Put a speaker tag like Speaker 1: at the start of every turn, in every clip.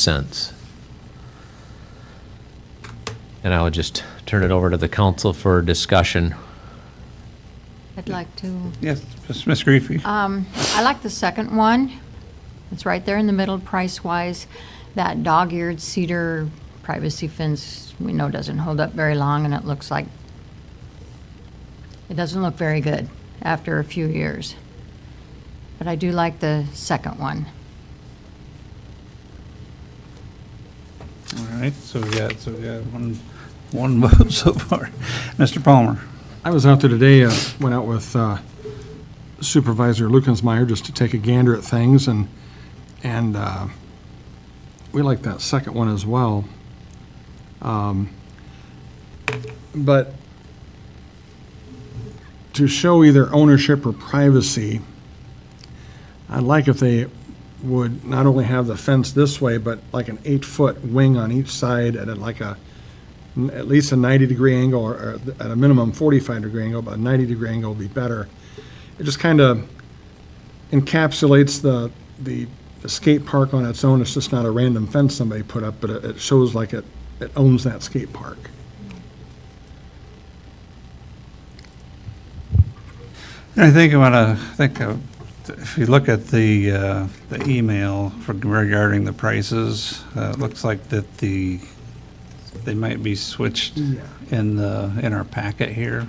Speaker 1: cents. And I would just turn it over to the council for discussion.
Speaker 2: I'd like to,
Speaker 3: Yes, Ms. Griffey?
Speaker 2: I like the second one. It's right there in the middle, price-wise. That dog-eared cedar privacy fence, we know doesn't hold up very long, and it looks like, it doesn't look very good after a few years. But I do like the second one.
Speaker 3: All right, so we got, so we got one, one vote so far. Mr. Palmer?
Speaker 4: I was out there today, uh, went out with uh, Supervisor Lukensmeyer just to take a gander at things, and, and uh, we like that second one as well. Um, But to show either ownership or privacy, I'd like if they would not only have the fence this way, but like an eight-foot wing on each side, and then like a, n- at least a 90-degree angle, or- or at a minimum 45-degree angle, but a 90-degree angle would be better. It just kind of encapsulates the, the the skate park on its own. It's just not a random fence somebody put up, but it it shows like it, it owns that skate park.
Speaker 3: I think I want to, I think uh, if you look at the, uh, the email for- regarding the prices, uh, it looks like that the, they might be switched in the, in our packet here.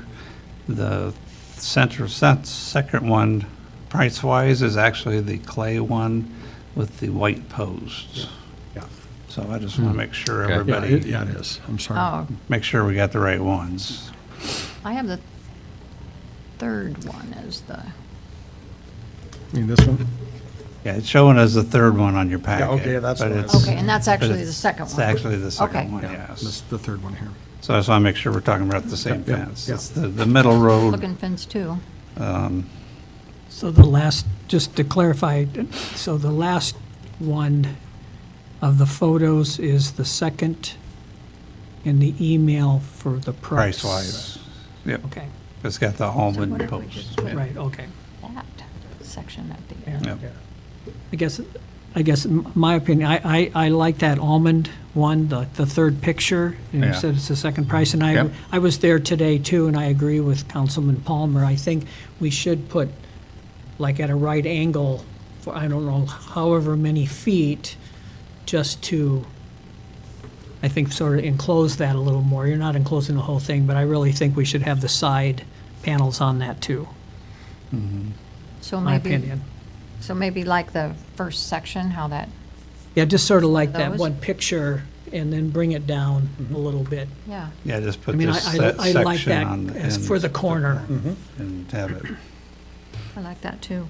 Speaker 3: The center, se- second one, price-wise, is actually the clay one with the white posts.
Speaker 4: Yeah.
Speaker 3: So I just want to make sure
Speaker 1: Okay.
Speaker 4: Yeah, it-
Speaker 3: everybody,
Speaker 4: yeah, it is. I'm sorry.
Speaker 2: Oh,
Speaker 3: make sure we got the right ones.
Speaker 2: I have the third one as the,
Speaker 4: You mean this one?
Speaker 3: Yeah, it's showing as the third one on your packet.
Speaker 4: okay, that's
Speaker 3: but
Speaker 4: what I-
Speaker 3: it's-
Speaker 2: okay, and that's
Speaker 3: but
Speaker 2: actually the
Speaker 3: it's-
Speaker 2: second
Speaker 3: It's
Speaker 2: one.
Speaker 3: actually the
Speaker 2: Okay.
Speaker 3: second one,
Speaker 4: Yeah, This,
Speaker 3: yes.
Speaker 4: the third one here.
Speaker 3: So I just want to make sure we're talking about the same
Speaker 4: Yep, yep,
Speaker 3: fence.
Speaker 4: yep.
Speaker 3: It's the, the middle road.
Speaker 2: looking fence, too.
Speaker 3: um,
Speaker 5: So the last, just to clarify, so the last one of the photos is the second in the email for the price.
Speaker 3: Price-wise,
Speaker 5: Okay,
Speaker 3: it's got the all wooden posts. yeah.
Speaker 5: right, okay.
Speaker 2: That section at the end.
Speaker 5: Yeah.
Speaker 3: Yep.
Speaker 5: I guess, I guess, m- my opinion, I, I, I like that almond one, the, the third picture. and You
Speaker 3: Yeah.
Speaker 5: said it's the second price, and I,
Speaker 3: Yep.
Speaker 5: I was there today too, and I agree with Councilman Palmer. I think we should put, like, at a right angle, for, I don't know, however many feet, just to, I think, sort of enclose that a little more. You're not enclosing the whole thing, but I really think we should have the side panels on that too,
Speaker 2: So
Speaker 5: my
Speaker 2: maybe.
Speaker 5: opinion.
Speaker 2: So maybe like the first section, how that,
Speaker 5: Yeah, just sort of like that
Speaker 2: Those?
Speaker 5: one picture and then bring it down a little bit.
Speaker 2: yeah,
Speaker 3: Yeah, just Mm-hmm.
Speaker 5: I
Speaker 3: put
Speaker 5: mean, I,
Speaker 3: this se-
Speaker 5: I I like
Speaker 3: section
Speaker 5: that
Speaker 3: on the
Speaker 5: as
Speaker 3: end Mm-hmm.
Speaker 5: for the corner.
Speaker 3: And have it.
Speaker 2: I like that too.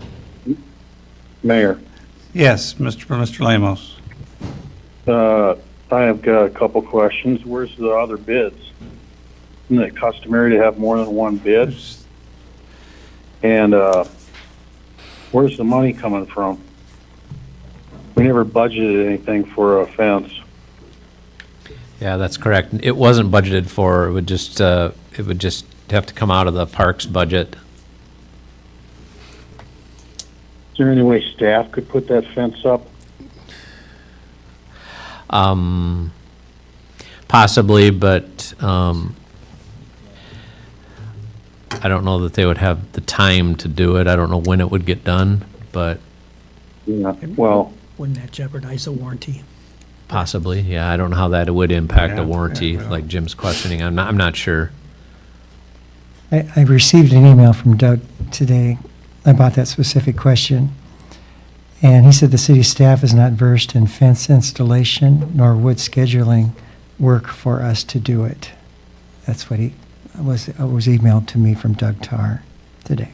Speaker 6: Mayor,
Speaker 3: Yes, Mr. Mr. Lamos.
Speaker 6: uh, I have got a couple questions. Where's the other bids? Isn't it customary to have more than one bid? And, uh, where's the money coming from? We never budgeted anything for a fence.
Speaker 1: Yeah, that's correct. It wasn't budgeted for, it would just, uh, it would just have to come out of the parks budget.
Speaker 6: Is there any way staff could put that fence up?
Speaker 1: Um, possibly, but, um, I don't know that they would have the time to do it. I don't know when it would get done, but
Speaker 6: Yeah, well,
Speaker 5: Wouldn't that jeopardize the warranty?
Speaker 1: possibly, yeah. I don't know how that would impact the
Speaker 3: Yeah, yeah,
Speaker 1: warranty,
Speaker 3: yeah.
Speaker 1: like Jim's questioning. I'm not, I'm not sure.
Speaker 7: I, I received an email from Doug today about that specific question. And he said the city staff is not versed in fence installation nor would scheduling work for us to do it. That's what he, was, was emailed to me from Doug Tar today.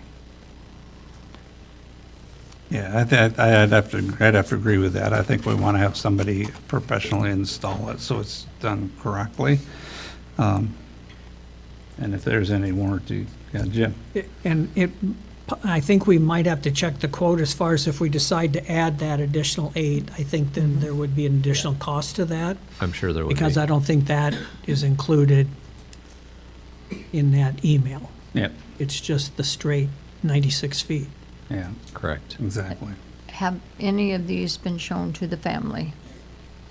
Speaker 3: Yeah, I think, I'd have to, I'd have to agree with that. I think we want to have somebody professionally install it so it's done correctly. Um, And if there's any warranty, yeah, Jim?
Speaker 5: It- And it, I think we might have to check the quote as far as if we decide to add that additional eight. I think then there would be an additional cost to that,
Speaker 1: I'm sure there would be.
Speaker 5: because I don't think that is included in that email.
Speaker 3: Yeah.
Speaker 5: It's just the straight 96 feet.
Speaker 3: Yeah,
Speaker 1: Correct.
Speaker 3: exactly.
Speaker 2: Have any of these been shown to the family?